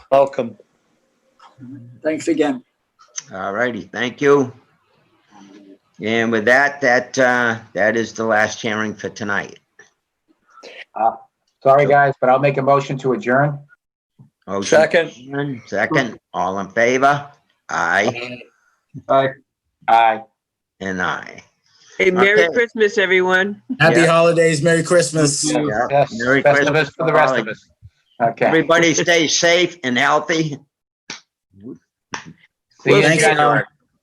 Welcome. Thanks again. All righty, thank you. And with that, that, uh, that is the last hearing for tonight. Sorry, guys, but I'll make a motion to adjourn. Motion- Second. Second, all in favor? Aye Aye. and aye. Hey, Merry Okay. Christmas, everyone. Happy Yeah. holidays, Merry Christmas. Yeah. Yes, Merry best of us Christmas. for the rest of us. Okay. Everybody stay safe and healthy. See you Thanks, in January.